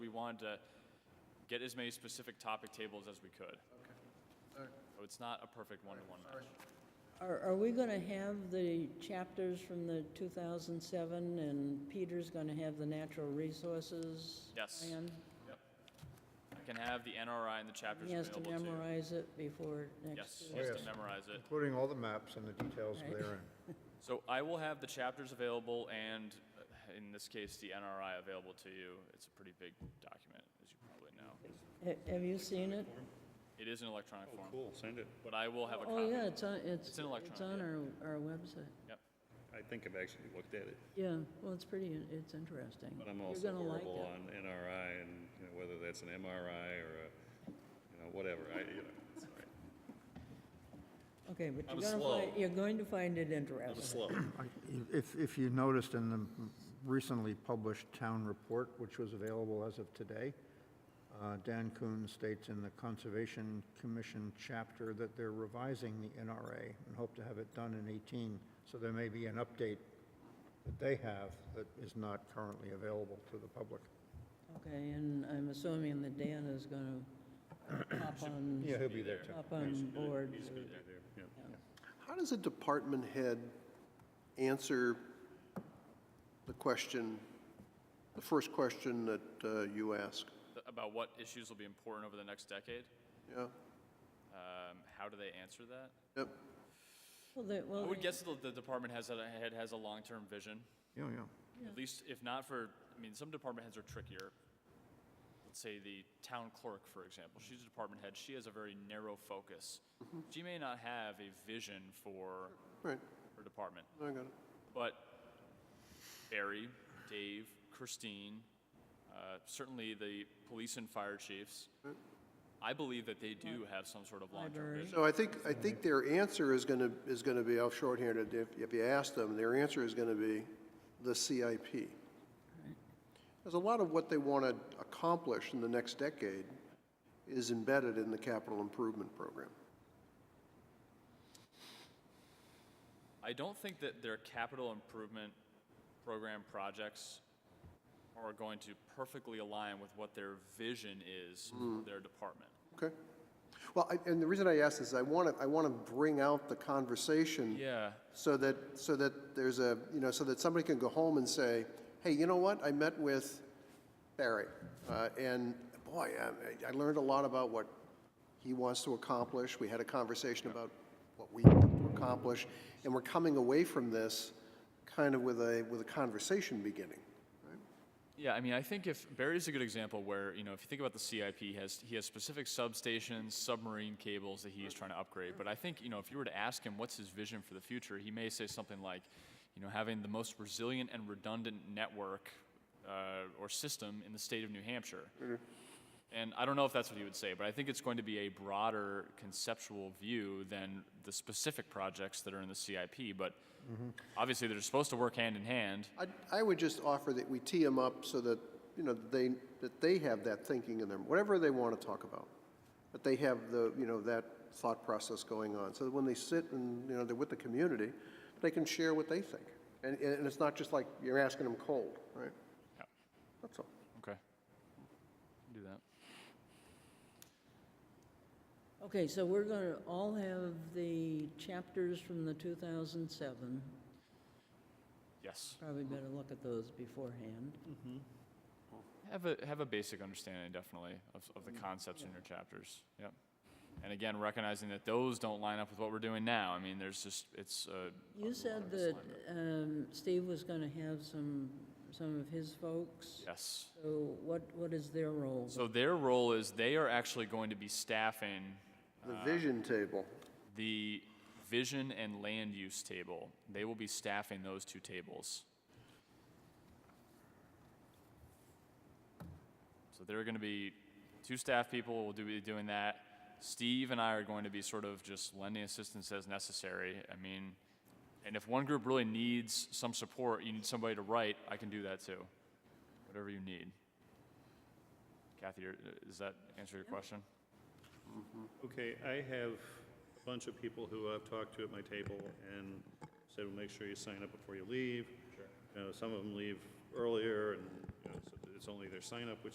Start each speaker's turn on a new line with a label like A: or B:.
A: wanted to get as many specific topic tables as we could. So it's not a perfect one-to-one match.
B: Are, are we gonna have the chapters from the 2007, and Peter's gonna have the natural resources?
A: Yes.
B: plan?
A: I can have the NRI and the chapters
B: He has to
A: available too.
B: memorize it before
A: Yes,
B: next.
A: he has
C: Yes.
A: to memorize it.
C: Including all the maps and the details
B: Right.
C: therein.
A: So I will have the chapters available and, uh, in this case, the NRI available to you. It's a pretty big document, as you probably know.
B: Ha- Have you seen it?
A: It is in electronic form,
D: Oh, Cool, send it.
A: but I will have a
B: Oh,
A: copy.
B: yeah, it's on, it's,
A: It's
B: it's
A: in
B: on
A: electronic, yeah.
B: our, our website.
A: Yep.
D: I think I've actually looked at it,
B: Yeah, well, it's pretty, in- it's interesting.
D: but I'm
B: You're
D: also
B: gonna like
D: horrible
B: it.
D: on NRI and, you know, whether that's an MRI or a, you know, whatever, I, you know, it's all right.
B: Okay, but
D: I'm
B: you're gonna
D: slow.
B: find, you're going to find it interesting.
D: slow.
C: I- If, if you noticed in the recently published town report, which was available as of today, uh, Dan Kuhn states in the Conservation Commission chapter that they're revising the NRA and hope to have it done in 18, so there may be an update that they have that is not currently available to the public.
B: Okay, and I'm assuming that Dan is gonna hop on,
C: Yeah, he'll be there too.
B: hop on board.
E: How does a department head answer the question, the first question that uh, you ask?
A: Th- About what issues will be important over the next decade?
E: Yeah,
A: Um, how do they answer that?
E: yep,
B: Well, they-
A: I
B: well,
A: would guess that the department has, a head has a long-term vision.
C: Yeah, yeah.
A: At least, if not for, I mean, some department heads are trickier. Let's say the town clerk, for example, she's a department head, she has a very narrow focus. She may not have a vision for
E: right,
A: her department,
E: I got it.
A: but Barry, Dave, Christine, uh, certainly the police and fire chiefs, I believe that they do have some sort of long-term
B: Library.
A: vision.
E: So I think, I think their answer is going to, is going to be, I'll shorthand it, if, if you ask them, their answer is going to be the CIP. There's a lot of what they want to accomplish in the next decade is embedded in the capital improvement program.
A: I don't think that their capital improvement program projects are going to perfectly align with what their vision is for their department.
E: Okay. Well, I- and the reason I ask is I want to, I want to bring out the conversation.
A: Yeah.
E: So that, so that there's a, you know, so that somebody can go home and say, hey, you know what? I met with Barry, uh, and boy, I, I learned a lot about what he wants to accomplish. We had a conversation about what we want to accomplish, and we're coming away from this kind of with a, with a conversation beginning.
A: Yeah, I mean, I think if Barry's a good example where, you know, if you think about the CIP, he has, he has specific substations, submarine cables that he's trying to upgrade. But I think, you know, if you were to ask him what's his vision for the future, he may say something like, you know, having the most resilient and redundant network uh, or system in the state of New Hampshire. And I don't know if that's what he would say, but I think it's going to be a broader conceptual view than the specific projects that are in the CIP. But obviously, they're supposed to work hand in hand.
E: I, I would just offer that we tee them up so that, you know, they, that they have that thinking in them, whatever they want to talk about. That they have the, you know, that thought process going on, so that when they sit and, you know, they're with the community, they can share what they think. And, and it's not just like you're asking them cold, right?
A: Yeah.
E: That's all.
A: Okay. Do that.
B: Okay, so we're gonna all have the chapters from the 2007.
A: Yes.
B: Probably better look at those beforehand.
A: Have a have a basic understanding definitely of, of the concepts in your chapters. Yep. And again, recognizing that those don't line up with what we're doing now. I mean, there's just it's. Uh,
B: You said that um, Steve was gonna have some, some of his folks.
A: yes.
B: So what, what is their role?
A: So their role is they are actually going to be staffing
E: The vision table.
A: the vision and land use table. They will be staffing those two tables. So there are going to be two staff people will do, be doing that. Steve and I are going to be sort of just lending assistance as necessary. I mean, and if one group really needs some support, you need somebody to write, I can do that too. Whatever you need. Kathy, are- does that answer your question?
D: Okay, I have a bunch of people who I've talked to at my table and said, well, make sure you sign up before you leave. Sure. You know, some of them leave earlier and, you know, so it's only their sign up, which